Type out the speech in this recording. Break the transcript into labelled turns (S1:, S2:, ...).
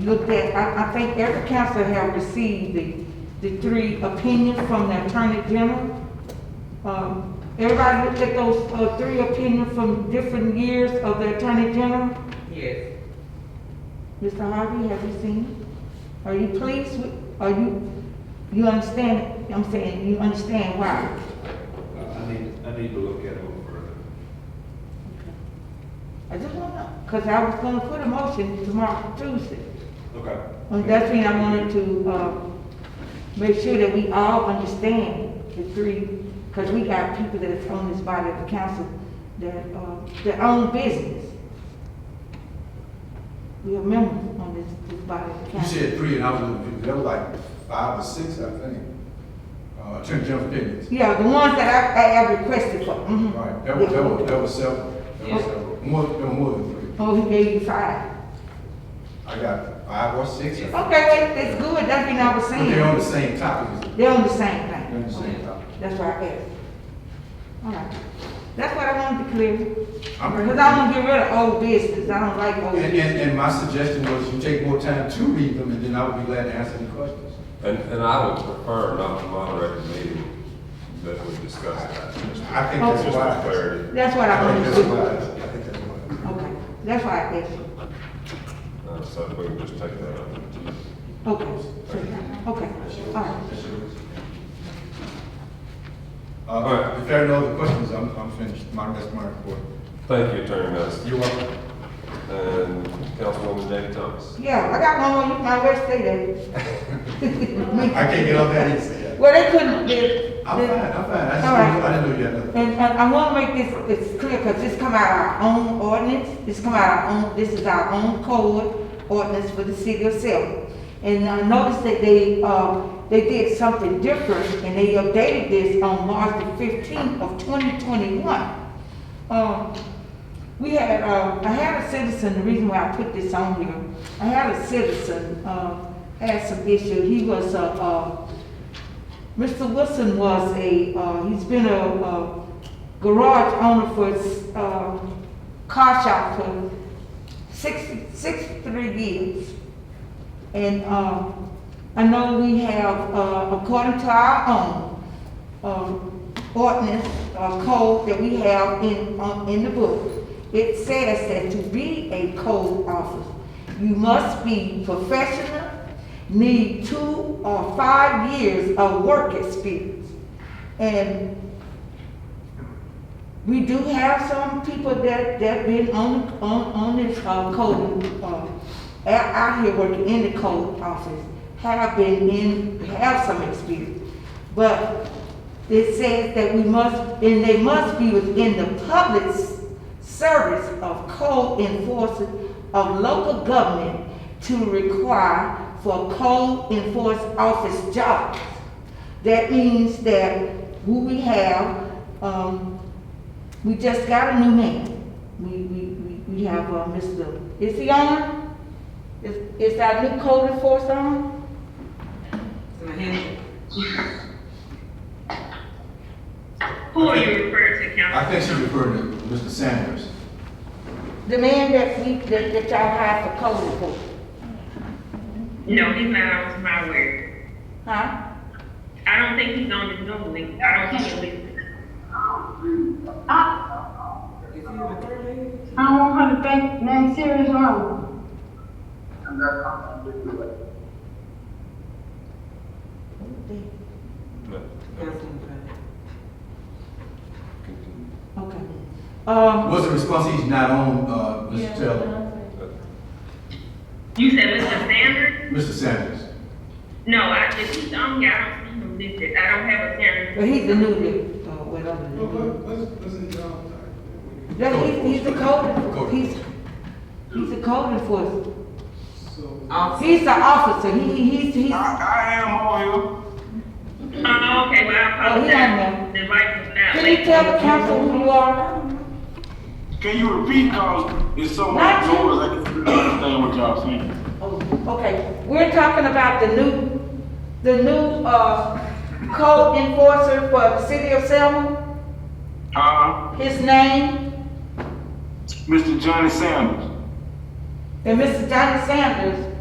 S1: looked at, I, I think every counselor have received the, the three opinions from the Attorney General. Um, everybody looked at those, uh, three opinions from different years of the Attorney General.
S2: Yes.
S1: Mr. Harvey, have you seen it? Are you pleased with, are you, you understand, I'm saying, you understand why?
S3: Uh, I need, I need to look at it a little further.
S1: I just wanna know, cause I was gonna put a motion tomorrow, Tuesday.
S3: Okay.
S1: Well, that's when I wanted to, uh, make sure that we all understand the three, because we got people that's on this body of the council that, uh, that own business. We have members on this, this body of the
S4: You
S1: council.
S4: said three, and I was looking, at- there were like five or six, I think. Uh, Attorney General opinions.
S1: Yeah, the ones that I, I have requested for, mhm.
S4: Right, that was, that was, that was several, that was
S1: Yeah.
S4: several, more, there were more than three.
S1: Oh, he gave you five.
S4: I got five or six.
S1: Okay, well, that's good, that's what I was
S4: But they're on
S1: saying.
S4: the same topic,
S1: They're on the same
S4: they're on the
S1: thing.
S4: same topic.
S1: That's why I asked. All right, that's what I wanted to clear.
S4: I'm ready.
S1: Because I want to get rid of old business, I don't like old
S4: And,
S1: business.
S4: and, and my suggestion was you take more time to read them, and then I would be glad to answer any questions.
S5: And, and I would prefer not to moderate the meeting that we discuss that.
S4: I think that's
S5: Just
S4: why.
S5: for clarity.
S1: That's what I
S4: I
S1: want
S4: think
S1: to
S4: that's
S1: do.
S4: why, I think that's why.
S1: Okay, that's why I asked you.
S5: Uh, So we can just take that up.
S1: Okay, okay, all right.
S5: All
S4: Uh,
S5: right.
S4: if there are no other questions, I'm, I'm finished, my, that's my report.
S5: Thank you, Attorney Madison.
S4: You're welcome.
S5: And Councilwoman Jackie Thomas.
S1: Yeah, I got one more, you might well say that.
S4: I can't get off that easy.
S1: Well, they couldn't, they,
S4: I'm fine,
S1: they-
S4: I'm fine, I just,
S1: All right.
S4: I didn't know you had another.
S1: and, and I want to make this, it's clear, because this come out of our own ordinance, this come out of our own, this is our own code ordinance for the city of Selma. And I noticed that they, uh, they did something different, and they updated this on March the fifteenth of twenty twenty-one. Um, we had, uh, I had a citizen, the reason why I put this on here, I had a citizen, uh, had some issue, he was, uh, uh, Mr. Wilson was a, uh, he's been a, uh garage owner for, uh, car shop for six, sixty-three years. And, uh, I know we have, uh, according to our own, um, ordinance, uh, code that we have in, um, in the book, it says that to be a code officer, you must be professional, need two or five years of work experience. And we do have some people that, that been on, on, on this, uh, code, uh, out, out here working in the code office, have been in, have some experience. But it says that we must, and they must be within the public s- service of code enforcement of local government to require for code enforcement office jobs. That means that who we have, um, we just got a new man. We, we, we, we have, uh, Mr., is he on? Is, is our new code enforcement on?
S2: It's Mahendra.
S6: Who are you referring to, Council?
S4: I think she referred to Mr. Sanders.
S1: The man that we, that, that y'all hired for code enforcement,
S6: No, he's not on my word.
S1: huh?
S6: I don't think he's on the Zoom link. I don't think he's.
S2: Is he the third lady?
S7: I want her to think next serious wrong.
S5: No.
S2: Councilwoman Bennett.
S5: Continue.
S1: Okay. Um,
S4: What's the response, he's not on, uh, Mr. Taylor,
S6: You said Mr. Sanders?
S4: Mr. Sanders?
S6: No, I, if he's on, here, I don't see him listed. I don't have a Sanders.
S1: but he's the new dude, uh, whatever. the new dude. Yeah, he's, he's the code,
S4: Code.
S1: he's, he's the code enforcer.
S2: Officer.
S1: He's the officer, he, he's, he's, oh,
S6: Oh, okay, well, I
S1: he on
S6: apologize. The light was not.
S1: can you
S6: lit.
S1: tell the council who you are?
S8: Can you repeat, cause it's so
S1: Not
S8: much
S1: you.
S8: noise, I can't really understand what y'all saying.
S1: Oh, okay, we're talking about the new, the new, uh, code enforcer for the city of Selma,
S8: Uh,
S1: his name,
S8: Mr. Johnny Sanders.
S1: and Mr. Johnny Sanders uh,